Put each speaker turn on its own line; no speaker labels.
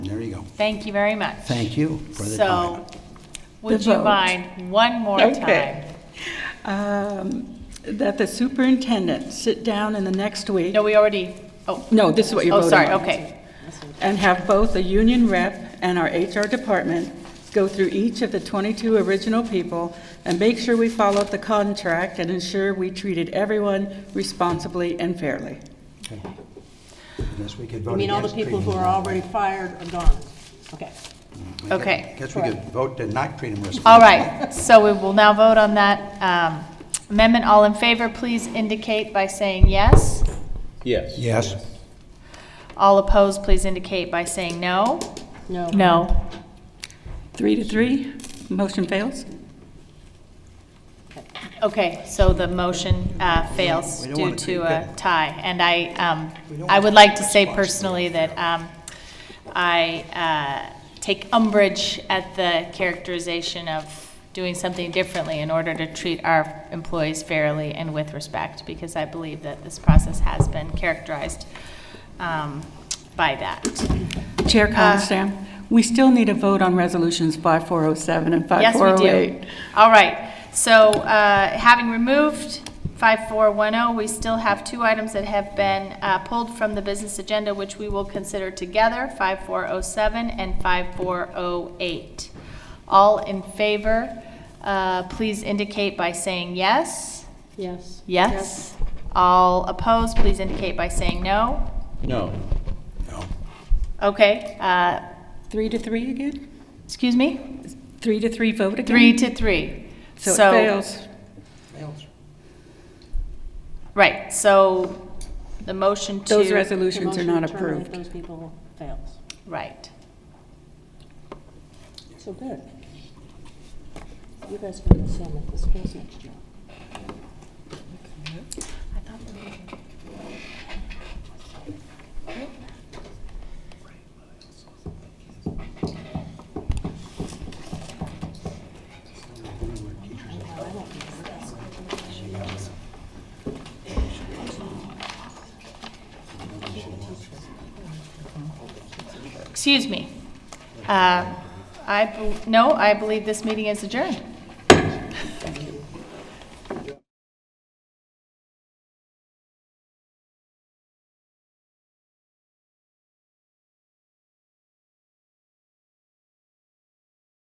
There you go.
Thank you very much.
Thank you for the time.
So, would
The
you
vote.
mind one more time?
Okay. Um, That the superintendent sit down in the next week,
No, we already, oh,
no, this is what you're
oh,
voting
sorry,
on.
okay.
And have both the union rep and our HR department go through each of the 22 original people and make sure we followed the contract and ensure we treated everyone responsibly and fairly.
Unless we could vote
You mean all the
against
people who
treating
are
them
already fired are gone? Okay.
that way.
Okay.
Guess we could vote to not treat them responsibly.
All right, so we will now vote on that um, amendment. All in favor, please indicate by saying yes.
Yes.
Yes.
All opposed, please indicate by saying no.
No.
No.
Three to three, motion fails?
Okay, so the motion uh, fails
We don't
due
wanna
to
create
a
that.
tie. And I, um,
We don't
I
wanna
would like to
create
say
that.
personally that um, I uh, take umbrage at the characterization of doing something differently in order to treat our employees fairly and with respect, because I believe that this process has been characterized um, by that.
Chair
Uh,
Constam, we still need a vote on resolutions 5407 and
Yes, we do.
5408.
All right, so uh, having removed 5410, oh, we still have two items that have been uh, pulled from the business agenda, which we will consider together, 5407 and 5408. All in favor, uh, please indicate by saying yes.
Yes.
Yes. All opposed, please indicate by saying no.
No.
No.
Okay, uh,
Three to three again?
excuse me?
Three to three vote again?
Three to three.
So it fails.
Right, so the motion to.
Those
The
resolutions are
motion
not
to terminate
approved.
Those people fails.
Right.
So good. You guys can to sell it this business.
Excuse me. Uh, I, bel- no, I believe this meeting is adjourned.